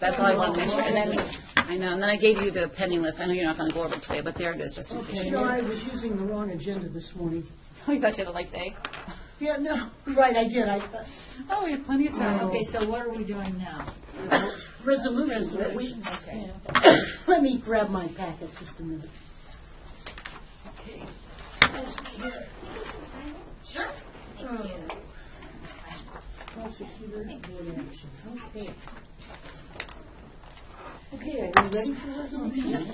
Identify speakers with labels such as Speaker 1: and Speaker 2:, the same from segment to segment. Speaker 1: That's all I wanted to make sure, and then, I know, and then I gave you the pending list, I know you're not gonna go over it today, but there it is, just in case.
Speaker 2: You know, I was using the wrong agenda this morning.
Speaker 1: We thought you had a light day.
Speaker 2: Yeah, no, right, I did, I,
Speaker 1: Oh, we have plenty of time.
Speaker 3: Okay, so what are we doing now?
Speaker 2: resolutions, but we,
Speaker 3: Okay.
Speaker 2: let me grab my packet just a minute. Okay. Sure. Prosecutor, board action, okay. Okay, are you ready for resolution?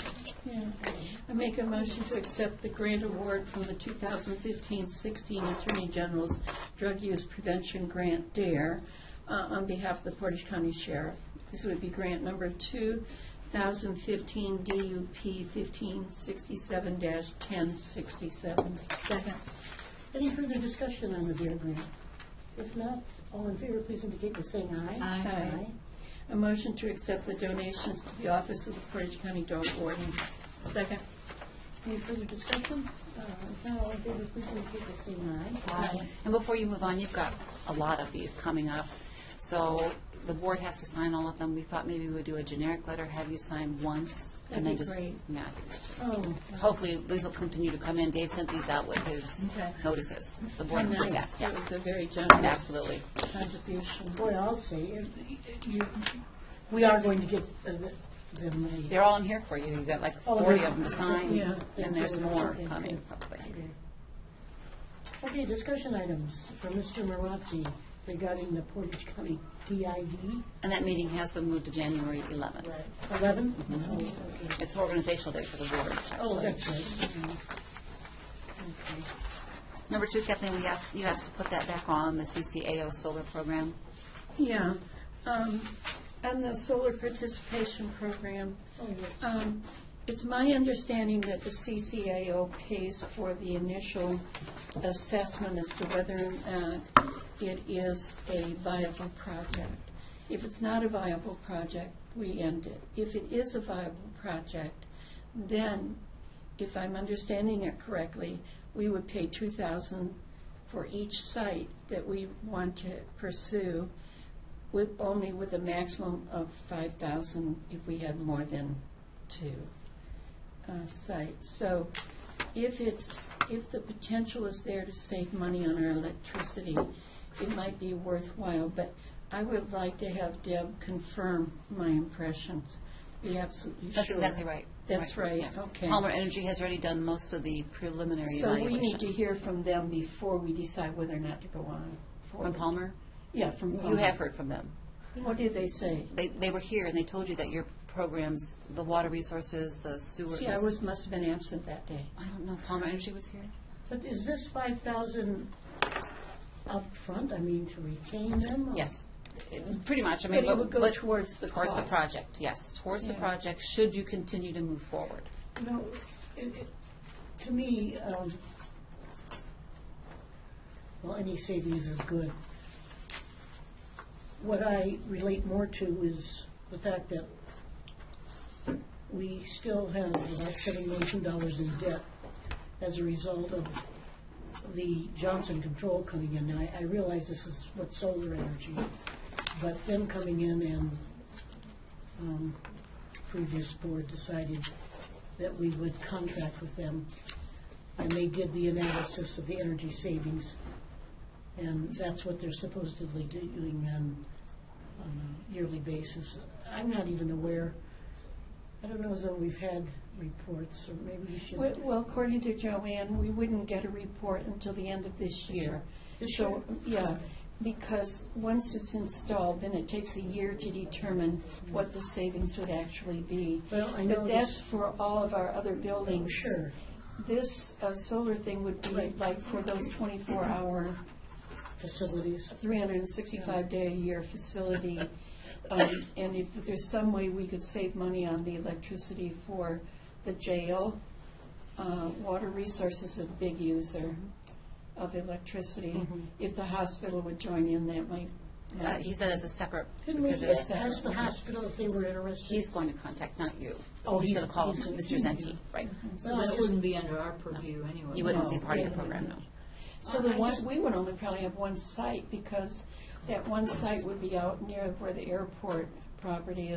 Speaker 4: I make a motion to accept the grant award from the 2015-16 Attorney General's Drug Use Prevention Grant DARE uh, on behalf of the Portage County Sheriff. This would be grant number 2015 DUP 1567-1067.
Speaker 3: Second.
Speaker 2: Any further discussion on the Bear Grant? If not, all in favor, please indicate by saying aye.
Speaker 3: Aye.
Speaker 2: Aye.
Speaker 4: A motion to accept the donations to the Office of the Portage County Dog Warden.
Speaker 3: Second.
Speaker 2: Any further discussion? Uh, If not, all in favor, please indicate by saying aye.
Speaker 1: And before you move on, you've got a lot of these coming up, so the board has to sign all of them. We thought maybe we would do a generic letter, have you sign once, and then
Speaker 4: That'd be
Speaker 1: just.
Speaker 4: great.
Speaker 1: Yeah.
Speaker 2: Oh,
Speaker 1: Hopefully, these will continue to come in. Dave sent these out with his
Speaker 3: Okay.
Speaker 1: notices, the board.
Speaker 4: And that
Speaker 1: yeah,
Speaker 4: was-
Speaker 1: yeah,
Speaker 4: that was a very generous
Speaker 1: Absolutely.
Speaker 4: contribution.
Speaker 2: boy, I'll say, if you- we are going to get uh, the- the money.
Speaker 1: They're all in here for you. You've got like
Speaker 2: Oh,
Speaker 1: forty
Speaker 2: yeah.
Speaker 1: of them to sign,
Speaker 2: Yeah.
Speaker 1: and there's more
Speaker 2: Okay,
Speaker 1: coming,
Speaker 2: good.
Speaker 1: hopefully.
Speaker 2: Okay, discussion items for Mr. Marazzi regarding the Portage County DID
Speaker 1: And that meeting has been moved to January eleventh.
Speaker 2: 11?
Speaker 1: It's organizational day for the board,
Speaker 2: Oh,
Speaker 1: actually.
Speaker 2: that's right.
Speaker 1: Number two, Kathleen, we asked, you asked to put that back on, the CCAO solar program.
Speaker 4: Yeah, um, and the solar participation program. Um, It's my understanding that the CCAO pays for the initial assessment as to whether or not it is a viable project. If it's not a viable project, we end it. If it is a viable project, then, if I'm understanding it correctly, we would pay two thousand for each site that we want to pursue with, only with a maximum of five thousand if we had more than two uh, sites. So if it's, if the potential is there to save money on our electricity, it might be worthwhile, but I would like to have Deb confirm my impressions, be absolutely sure.
Speaker 1: That's exactly right.
Speaker 4: That's right,
Speaker 1: yes.
Speaker 4: okay.
Speaker 1: Palmer Energy has already done most of the preliminary
Speaker 4: So we need to
Speaker 1: evaluation.
Speaker 4: hear from them before we decide whether or not to go on. forward.
Speaker 1: From Palmer?
Speaker 4: Yeah, from Palmer.
Speaker 1: You have heard from them.
Speaker 4: What did they say?
Speaker 1: They, they were here and they told you that your programs, the water resources, the sewer.
Speaker 4: See, I was, must have been absent that day.
Speaker 1: I don't know, Palmer Energy was here?
Speaker 2: So is this 5,000 up front? I mean, to retain them? or-
Speaker 1: Yes, pretty much, I mean.
Speaker 4: But it
Speaker 1: but-
Speaker 4: would go
Speaker 1: but
Speaker 4: towards the
Speaker 1: Towards the
Speaker 4: cost.
Speaker 1: project, yes, towards the
Speaker 4: Yeah.
Speaker 1: project, should you continue to move forward.
Speaker 2: You know, it- it- to me, um, well, any savings is good. What I relate more to is the fact that we still have about seven million dollars in debt as a result of the Johnson Control coming in. Now, I, I realize this is what solar energy, is, but them coming in and um, previous board decided that we would contract with them, and they did the analysis of the energy savings, and that's what they're supposedly doing on, on a yearly basis. I'm not even aware, I don't know as though we've had reports, or maybe we should.
Speaker 4: Well, well, according to Joanne, we wouldn't get a report until the end of this year.
Speaker 2: This
Speaker 4: So, yeah, because once it's installed, then it takes a year to determine what the savings would actually be.
Speaker 2: Well, I know
Speaker 4: But
Speaker 2: this-
Speaker 4: that's for all of our other buildings.
Speaker 2: Sure.
Speaker 4: This uh, solar thing would be
Speaker 2: Right.
Speaker 4: like for those 24-hour
Speaker 2: Facilities.
Speaker 4: 365-day-a-year facility, Um, and if there's some way we could save money on the electricity for the jail, uh, Water Resources is a big user of electricity. If the hospital would join in, that might,
Speaker 1: Uh, He said it's a separate,
Speaker 2: Didn't we
Speaker 1: because it's,
Speaker 2: ask the hospital if they were interested?
Speaker 1: he's going to contact, not you.
Speaker 2: Oh,
Speaker 1: He's
Speaker 2: he's-
Speaker 1: going to call
Speaker 2: he's-
Speaker 1: Mr. Zenti, right.
Speaker 2: Mm-hmm.
Speaker 3: So that wouldn't be under our purview anyway.
Speaker 1: You wouldn't
Speaker 4: No.
Speaker 2: Oh,
Speaker 1: be part of your program, no.
Speaker 4: so the one, we would only probably have one site, because that one site would be out near where the airport property is.